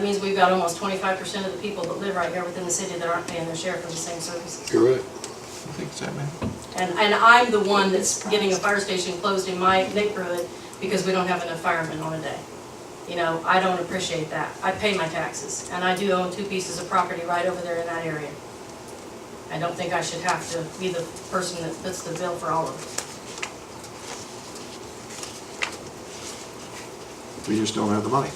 because we've got almost twenty-five percent of the people that live right here within the city that aren't paying their share for the same services. You're right. I think so, man. And, and I'm the one that's getting a fire station closed in my neighborhood because we don't have enough firemen on a day. You know, I don't appreciate that. I pay my taxes, and I do own two pieces of property right over there in that area. I don't think I should have to be the person that puts the bill for all of it. We just don't have the money.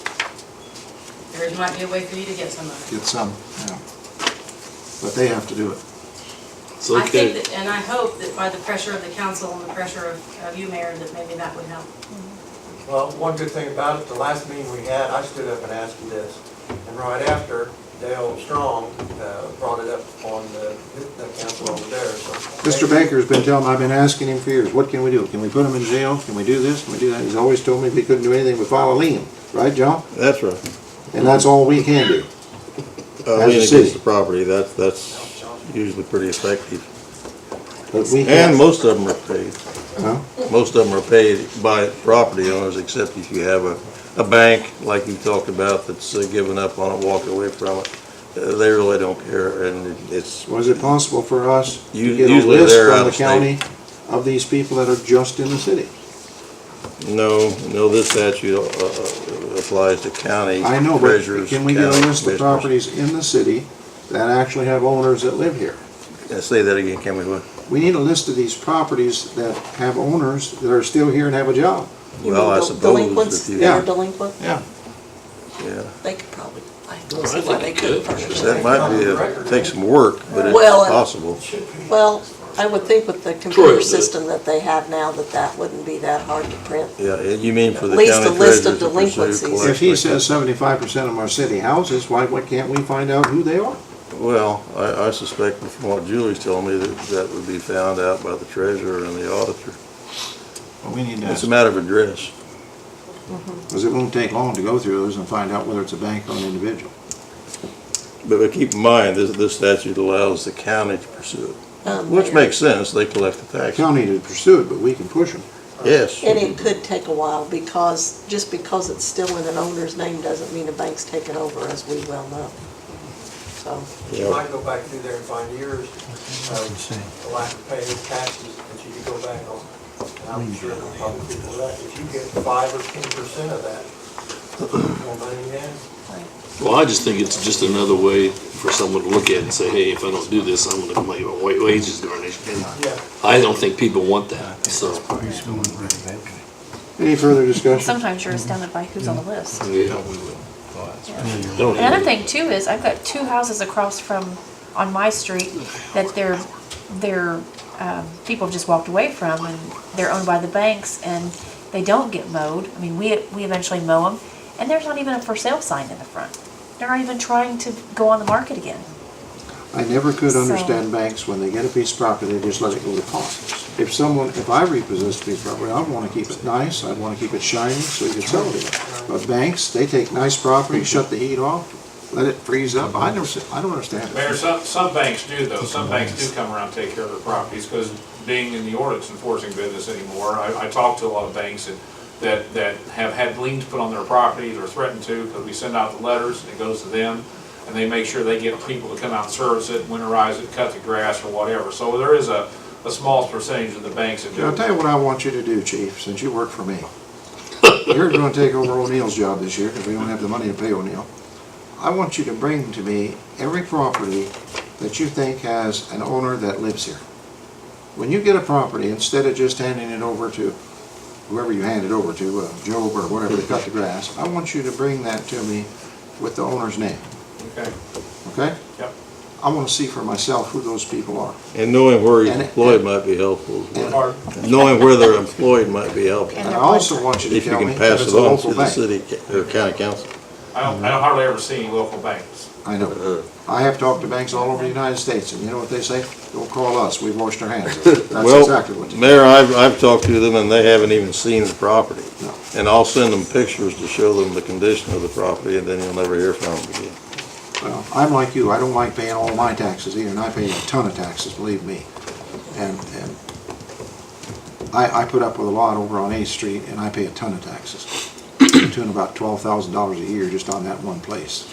There might be a way for you to get some of it. Get some, yeah. um, But they have to do it. It's I think okay. that, and I hope that by the pressure of the council and the pressure of, of you, Mayor, that maybe that would help. Well, one good thing about it, the last meeting we had, I stood up and asked you this. And right after, Dale Strong uh, brought it up on the the council over there, so. Mr. Baker's been telling, I've been asking him for years, what can we do? Can we put him in jail? Can we do this? Can we do that? He's always told me we couldn't do anything but file a lien, right, John? That's right. And that's all we can do. Uh, As a lean city. against the property, that's, that's usually pretty effective. But we And can't, most of them are paid. Huh? Most of them are paid by property owners, except if you have a, a bank, like you talked about, that's uh, given up on it, walked away from it. Uh, They really don't care, and it's, was it possible for us to You- get a usually list they're from out the of state. county of these people that are just in the city? no, no, this statute uh, uh, applies to county I know, but treasurers, can we get county a list of commissioners. properties in the city that actually have owners that live here? Uh, Say that again, can we? We need a list of these properties that have owners that are still here and have a job. You Well, mean I del- suppose Delinquents, if you, that are Yeah. delinquent, Yeah. yeah. they could probably, I No, I don't see why think they it couldn't. could. That personally. might be, a- take some work, but it's Well, and- possible. Well, I would think with the Troy computer would. system that they have now, that that wouldn't be that hard to print. Yeah, and you mean for the At least county a list treasurer of to pursue delinquencies. If he collection? says seventy-five percent of our city houses, why, why can't we find out who they are? Well, I, I suspect from what Julie's telling me that that would be found out by the treasurer and the auditor. Well, we need It's a matter of address. Because it won't take long to go through those and find out whether it's a bank or an individual. But, but keep in mind, this, this statute allows the county to pursue it, Um, which Mayor. makes sense, they collect the The tax. county to pursue it, but we can push them. Yes. And it could take a while because, just because it's still in an owner's name doesn't mean a bank's taken over, as we well know. So, You might go back through there and find years of the lack of paying taxes that you could go back on. And I'm sure there'll probably be that. If you get five or ten percent of that, more money you have. Well, I just think it's just another way for someone to look at it and say, hey, if I don't do this, I'm gonna, my wa- wages garnished. And Yeah. I don't think people want that, so. Any further discussion? Sometimes you're astounded by who's on the list. Yeah. I don't Another even- thing too is I've got two houses across from, on my street, that their, their, um, people have just walked away from and they're owned by the banks and they don't get mowed. I mean, we, we eventually mow them and there's not even a for sale sign in the front. They're not even trying to go on the market again. I never could So- understand banks, when they get a piece of property, they just let it go to pawn. If someone, if I repossess a piece of property, I'd want to keep it nice, I'd want to keep it shiny, so you can sell it again. But banks, they take nice property, shut the heat off, let it freeze up, I never, I don't understand. it. Mayor, some, some banks do though, some banks do come around and take care of their properties, because being in the ordinance enforcing business anymore, I, I talk to a lot of banks that, that, that have had liens put on their properties or threatened to, because we send out the letters and it goes to them, and they make sure they get people to come out and service it, winterize it, cut the grass or whatever, so there is a, a small percentage of the banks that do. I'll tell you what I want you to do, chief, since you work for me. You're gonna take over O'Neill's job this year, because we don't have the money to pay O'Neill. I want you to bring to me every property that you think has an owner that lives here. When you get a property, instead of just handing it over to whoever you hand it over to, uh, Job or whatever, to cut the grass, I want you to bring that to me with the owner's name, Okay, okay? Yep. I wanna see for myself who those people are. And knowing where he's And- employed might be helpful. as well. Or- Knowing where they're employed might be helpful, And And I their also website. want you to if you tell me can if pass it's it a on to local the bank. city, ca- or county council. I don't, I don't hardly ever see any local banks. I know. I have talked to banks all over the United States, and you know what they say? Don't call us, we've washed our hands. of it." That's exactly what Well, they Mayor, I've, I've talked to them and they haven't even seen the property. No. And I'll send them pictures to show them the condition of the property and then you'll never hear from them again. Well, I'm like you, I don't like paying all my taxes either, and I pay a ton of taxes, believe me. And, and I, I put up with a lot over on Eighth Street, and I pay a ton of taxes. To the tune of about twelve thousand dollars a year just on that one place.